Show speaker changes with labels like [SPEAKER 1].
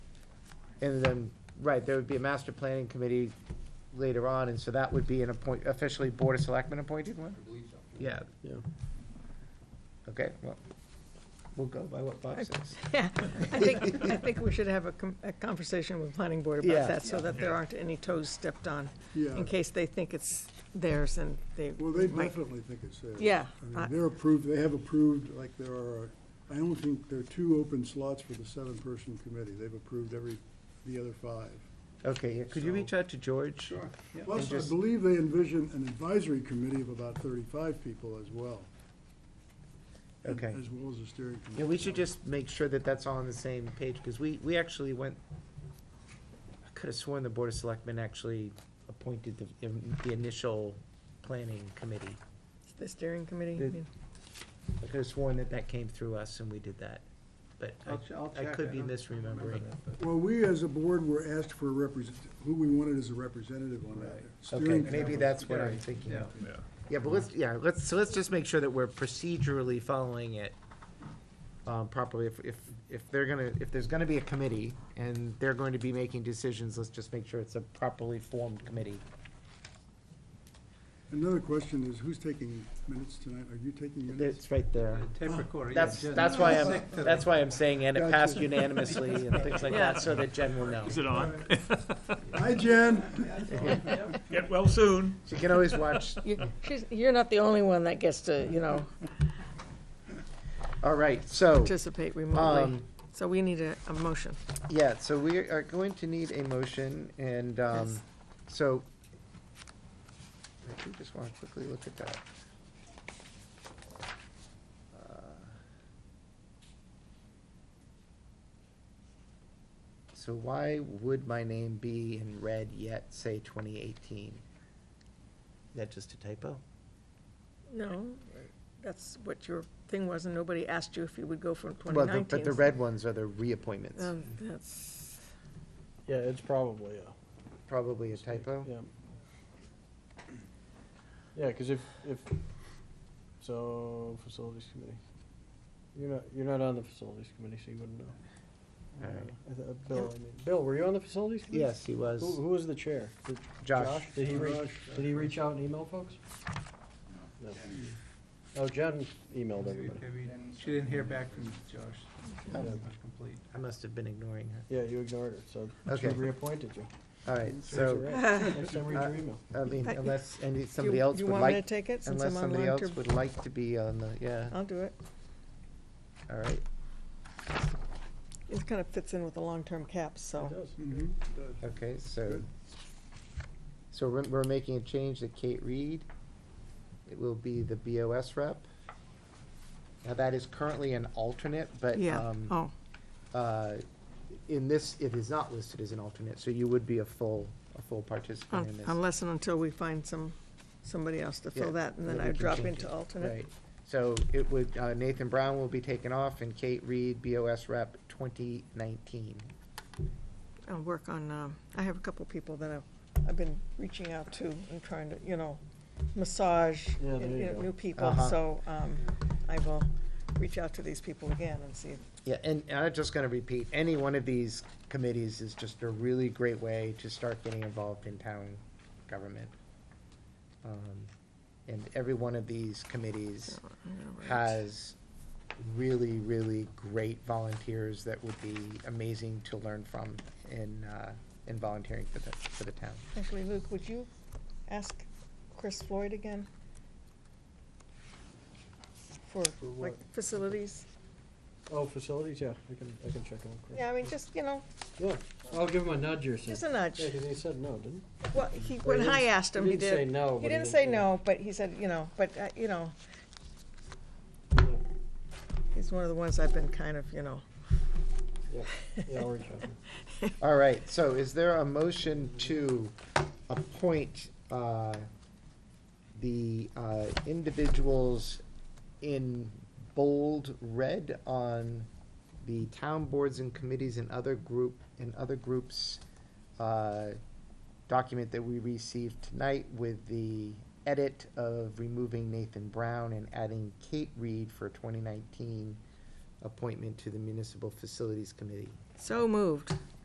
[SPEAKER 1] And then, right, there would be a master planning committee later on, and so that would be an appoint, officially Board of Selectmen appointed one?
[SPEAKER 2] I believe so.
[SPEAKER 1] Yeah,
[SPEAKER 3] Yeah.
[SPEAKER 1] okay, well, we'll go by what Bob says.
[SPEAKER 4] Yeah, I think, I think we should have a, com- a conversation with planning board
[SPEAKER 1] Yeah.
[SPEAKER 4] about that, so that there aren't any toes stepped on,
[SPEAKER 5] Yeah,
[SPEAKER 4] in case they think it's theirs and they
[SPEAKER 5] well, they
[SPEAKER 4] might.
[SPEAKER 5] definitely think it's there.
[SPEAKER 4] Yeah, uh,
[SPEAKER 5] I
[SPEAKER 4] I-
[SPEAKER 5] mean, they're approved, they have approved, like, there are, I don't think there are two open slots for the seven-person committee. They've approved every, the other five.
[SPEAKER 1] Okay, yeah, could you
[SPEAKER 5] So-
[SPEAKER 1] reach out to George?
[SPEAKER 2] Sure, yeah.
[SPEAKER 1] And
[SPEAKER 5] Plus, I
[SPEAKER 1] just-
[SPEAKER 5] believe they envision an advisory committee of about thirty-five people as well. and-
[SPEAKER 1] Okay.
[SPEAKER 5] As well as a steering committee.
[SPEAKER 1] Yeah, we should just make sure that that's all on the same page, because we, we actually went, I could have sworn the Board of Selectmen actually appointed the, the initial planning committee.
[SPEAKER 4] The steering committee,
[SPEAKER 1] The-
[SPEAKER 4] I mean,
[SPEAKER 1] I could have sworn that that came through us and we did that, but I-
[SPEAKER 2] I'll ch- I'll
[SPEAKER 1] I
[SPEAKER 2] check.
[SPEAKER 1] could
[SPEAKER 2] I
[SPEAKER 1] be
[SPEAKER 2] don't
[SPEAKER 1] misremembering.
[SPEAKER 5] Well, we as a board were asked for a represent, who we wanted as a representative on that.
[SPEAKER 2] Right.
[SPEAKER 1] Okay,
[SPEAKER 5] Steering
[SPEAKER 1] maybe
[SPEAKER 5] committee.
[SPEAKER 1] that's what I'm thinking
[SPEAKER 2] Yeah,
[SPEAKER 1] of. Yeah, but let's, yeah, let's, so let's just make sure that we're procedurally following it um, properly. If, if, if they're gonna, if there's gonna be a committee and they're going to be making decisions, let's just make sure it's a properly formed committee.
[SPEAKER 5] Another question is, who's taking minutes tonight? Are you taking minutes?
[SPEAKER 1] It's right there.
[SPEAKER 2] the tape recorder, yeah,
[SPEAKER 1] That's,
[SPEAKER 2] Jen-
[SPEAKER 1] that's why I'm, that's why I'm saying, and it
[SPEAKER 5] Gotcha.
[SPEAKER 1] passed unanimously and things like
[SPEAKER 4] Yeah.
[SPEAKER 1] that, so that Jen will know.
[SPEAKER 3] Is it on?
[SPEAKER 5] Hi, Jen.
[SPEAKER 3] Get well soon.
[SPEAKER 1] She can always watch.
[SPEAKER 4] you- she's, you're not the only one that gets to, you know,
[SPEAKER 1] All right, so,
[SPEAKER 4] Oh. participate remotely.
[SPEAKER 1] um,
[SPEAKER 4] So we need a, a motion.
[SPEAKER 1] yeah, so we are going to need a motion and, um,
[SPEAKER 4] Yes.
[SPEAKER 1] so. I do just wanna quickly look at that. Uh, So why would my name be in red yet say twenty eighteen? Is that just a typo?
[SPEAKER 4] No, that's what your thing was, and nobody asked you if you would go from
[SPEAKER 1] Well, the-
[SPEAKER 4] 2019.
[SPEAKER 1] but the red ones are the reappointments.
[SPEAKER 4] Um, That's,
[SPEAKER 3] Yeah, it's probably, a-
[SPEAKER 1] Probably a typo.
[SPEAKER 3] yeah. Yeah, because if, if, so, facilities committee. You're not, you're not on the facilities committee, so you wouldn't know.
[SPEAKER 1] All right.
[SPEAKER 3] I th- uh, Bill, I mean, Bill, were you on the facilities committee?
[SPEAKER 1] Yes, he
[SPEAKER 3] Who,
[SPEAKER 1] was.
[SPEAKER 3] who was the chair? Did
[SPEAKER 1] Josh.
[SPEAKER 3] Did he reach,
[SPEAKER 5] Josh.
[SPEAKER 3] did he reach out and email folks? No. Oh, Jen emailed
[SPEAKER 2] Maybe-
[SPEAKER 3] everybody.
[SPEAKER 2] maybe She didn't hear back from Josh,
[SPEAKER 3] Oh.
[SPEAKER 2] It's not complete.
[SPEAKER 1] I must have been ignoring her.
[SPEAKER 3] Yeah, you ignored her, so she
[SPEAKER 1] Okay.
[SPEAKER 3] reappointed you.
[SPEAKER 1] All right,
[SPEAKER 3] That's
[SPEAKER 1] so,
[SPEAKER 3] right. Next time, read your
[SPEAKER 1] Uh,
[SPEAKER 3] email.
[SPEAKER 1] I mean,
[SPEAKER 4] I-
[SPEAKER 1] unless, and
[SPEAKER 4] do
[SPEAKER 1] somebody
[SPEAKER 4] you
[SPEAKER 1] else
[SPEAKER 4] you
[SPEAKER 1] would
[SPEAKER 4] want me to
[SPEAKER 1] like,
[SPEAKER 4] take it, since
[SPEAKER 1] unless
[SPEAKER 4] I'm
[SPEAKER 1] somebody
[SPEAKER 4] online
[SPEAKER 1] else
[SPEAKER 4] to?
[SPEAKER 1] would like to be on the, yeah,
[SPEAKER 4] I'll do it.
[SPEAKER 1] all right.
[SPEAKER 4] It kind of fits in with the long-term caps, so.
[SPEAKER 3] Mm-hmm. It does.
[SPEAKER 5] Mhm.
[SPEAKER 1] Okay, so,
[SPEAKER 5] Good.
[SPEAKER 1] so we're, we're making a change to Kate Reed. It will be the BOS rep. Now, that is currently an alternate, but,
[SPEAKER 4] Yeah,
[SPEAKER 1] um,
[SPEAKER 4] oh,
[SPEAKER 1] uh, in this, it is not listed as an alternate, so you would be a full, a full participant in
[SPEAKER 4] un-
[SPEAKER 1] this.
[SPEAKER 4] unless and until we find some, somebody else to
[SPEAKER 1] Yeah,
[SPEAKER 4] fill that, and then
[SPEAKER 1] then
[SPEAKER 4] I
[SPEAKER 1] we can
[SPEAKER 4] drop
[SPEAKER 1] change
[SPEAKER 4] into
[SPEAKER 1] it.
[SPEAKER 4] alternate.
[SPEAKER 1] Right, so it would, uh, Nathan Brown will be taken off and Kate Reed, BOS rep, twenty nineteen.
[SPEAKER 4] I'll work on, um, I have a couple people that I've, I've been reaching out to and trying to, you know, massage
[SPEAKER 3] Yeah, there
[SPEAKER 4] in-
[SPEAKER 3] you
[SPEAKER 4] in
[SPEAKER 3] go.
[SPEAKER 4] new people,
[SPEAKER 1] Uh-huh.
[SPEAKER 4] so, um, I will reach out to these people again and see. if-
[SPEAKER 1] Yeah, and, and I'm just gonna repeat, any one of these committees is just a really great way to start getting involved in town government. Um, And every one of these committees
[SPEAKER 4] I'm gonna write.
[SPEAKER 1] has really, really great volunteers that would be amazing to learn from in, uh, in volunteering for the, for the town.
[SPEAKER 4] Actually, Luke, would you ask Chris Floyd again? For,
[SPEAKER 3] For
[SPEAKER 4] like,
[SPEAKER 3] what?
[SPEAKER 4] facilities?
[SPEAKER 3] Oh, facilities, yeah, I can, I can check on Chris.
[SPEAKER 4] Yeah, I mean, just, you know,
[SPEAKER 3] Yeah, I'll give him a nudge or something.
[SPEAKER 4] just a nudge.
[SPEAKER 3] Yeah, 'cause he said no, didn't
[SPEAKER 4] Well, he,
[SPEAKER 3] Or he
[SPEAKER 4] when I
[SPEAKER 3] didn't-
[SPEAKER 4] asked him,
[SPEAKER 3] he
[SPEAKER 4] he
[SPEAKER 3] didn't say
[SPEAKER 4] did.
[SPEAKER 3] no, but
[SPEAKER 4] He
[SPEAKER 3] he
[SPEAKER 4] didn't
[SPEAKER 3] did-
[SPEAKER 4] say
[SPEAKER 3] yeah.
[SPEAKER 4] no, but he said, you know, but, uh, you know,
[SPEAKER 3] he?
[SPEAKER 4] he's one of the ones I've been kind of, you know.
[SPEAKER 3] Yeah, yeah, yeah, I'll reach out.
[SPEAKER 1] All right, so is there a motion to appoint uh, the uh, individuals in bold red on the town boards and committees and other group, and other groups uh, document that we received tonight with the edit of removing Nathan Brown and adding Kate Reed for 2019 appointment to the Municipal Facilities Committee?
[SPEAKER 4] So moved.